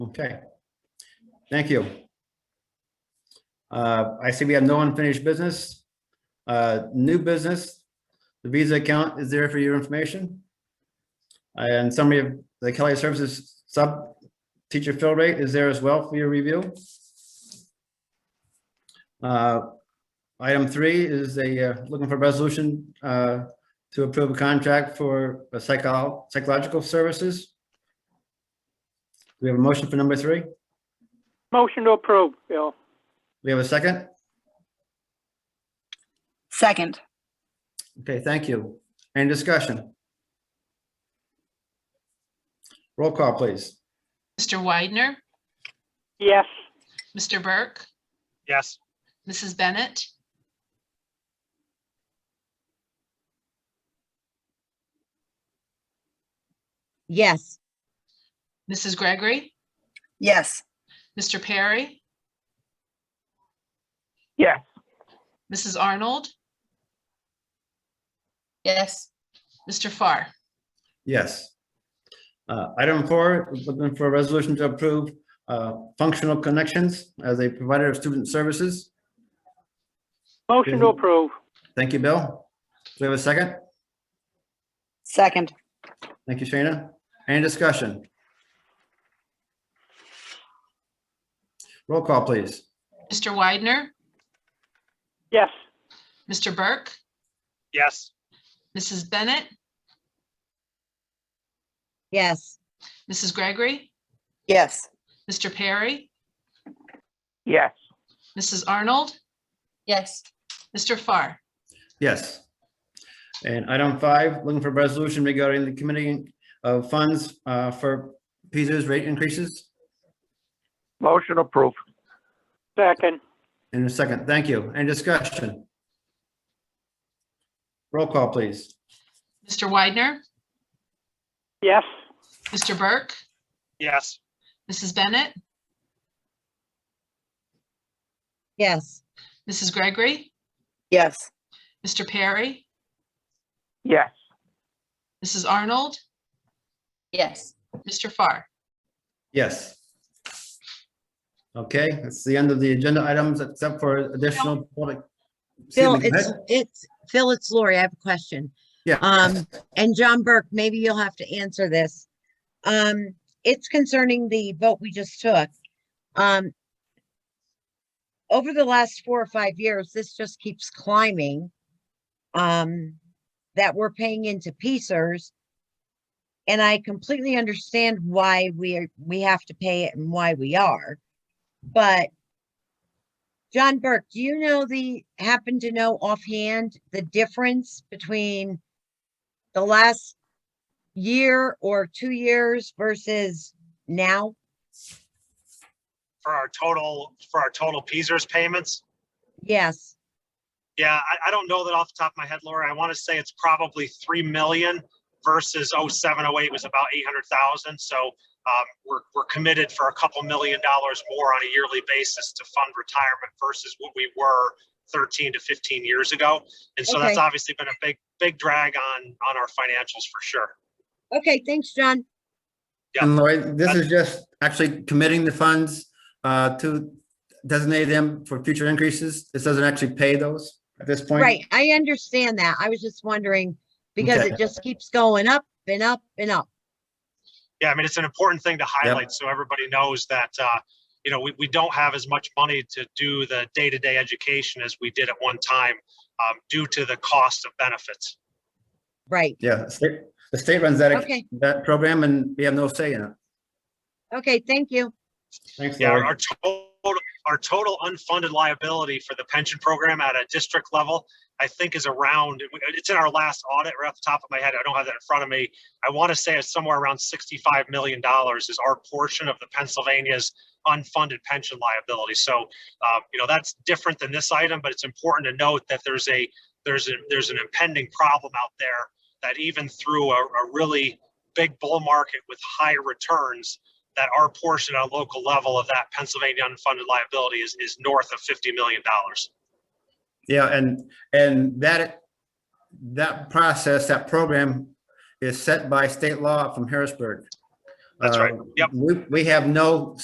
Okay. Thank you. Uh, I see we have no unfinished business. Uh, New business, the Visa account is there for your information. And summary of the Kelly Services sub teacher fill rate is there as well for your review. Uh, Item three is a, uh, looking for resolution uh, to approve a contract for a psycho- psychological services. We have a motion for number three. Motion to approve, Bill. We have a second. Second. Okay, thank you. Any discussion? Roll call, please. Mr. Widener, Yes. Mr. Burke, Yes. Mrs. Bennett, Yes, Mrs. Gregory, Yes. Mr. Perry, Yes. Mrs. Arnold, yes, Mr. Farr. Yes. Uh, Item four, looking for a resolution to approve uh, functional connections as a provider of student services. Motion to approve. Thank you, Bill. Do we have a second? Second. Thank you, Shayna. Any discussion? Roll call, please. Mr. Widener, Yes. Mr. Burke, Yes. Mrs. Bennett, yes, Mrs. Gregory, Yes. Mr. Perry, Yes. Mrs. Arnold, yes, Mr. Farr. Yes. And item five, looking for a resolution regarding the committee of funds uh, for PISA's rate increases. Motion approved. Second. In a second, thank you. Any discussion? Roll call, please. Mr. Widener, Yes. Mr. Burke, Yes. Mrs. Bennett, yes, Mrs. Gregory, Yes. Mr. Perry, Yes. Mrs. Arnold, yes, Mr. Farr. Yes. Okay, that's the end of the agenda items except for additional. public- Excuse Phil, me, go it's, ahead. it's, Phil, it's Lori, I have a question. Yeah. Um, and John Burke, maybe you'll have to answer this. Um, it's concerning the vote we just took. Um, over the last four or five years, this just keeps climbing. Um, that we're paying into pieces. And I completely understand why we are, we have to pay it and why we are. But John Burke, do you know the, happen to know offhand, the difference between the last year or two years versus now? For our total, for our total Peasars payments. Yes, Yeah, I, I don't know that off the top of my head, Laura. I want to say it's probably 3 million versus 07, 08 was about 800,000. So um, we're, we're committed for a couple million dollars more on a yearly basis to fund retirement versus what we were 13 to 15 years ago. And so that's Okay. obviously been a big, big drag on, on our financials for sure. okay, thanks, John. Yeah. And Lori, this is just actually committing the funds uh, to designate them for future increases. This doesn't actually pay those at this point. Right, I understand that. I was just wondering, because Okay. it just keeps going up and up and up. Yeah, I mean, it's an important thing to highlight so everybody knows that, uh, you know, we, we don't have as much money to do the day-to-day education as we did at one time um, due to the cost of benefits. Right, Yeah, the state, the state runs that, Okay. that program and we have no say in it. okay, thank you. Thanks, Yeah, our Lori. our total, our total unfunded liability for the pension program at a district level, I think is around, it's in our last audit right off the top of my head. I don't have that in front of me. I want to say it's somewhere around $65 million is our portion of the Pennsylvania's unfunded pension liability. So, uh, you know, that's different than this item, but it's important to note that there's a, there's a, there's an impending problem out there that even through a, a really big bull market with high returns, that our portion on a local level of that Pennsylvania unfunded liability is, is north of $50 million. Yeah, and, and that, that process, that program is set by state law from Harrisburg. That's right. Uh, Yep. we- We have no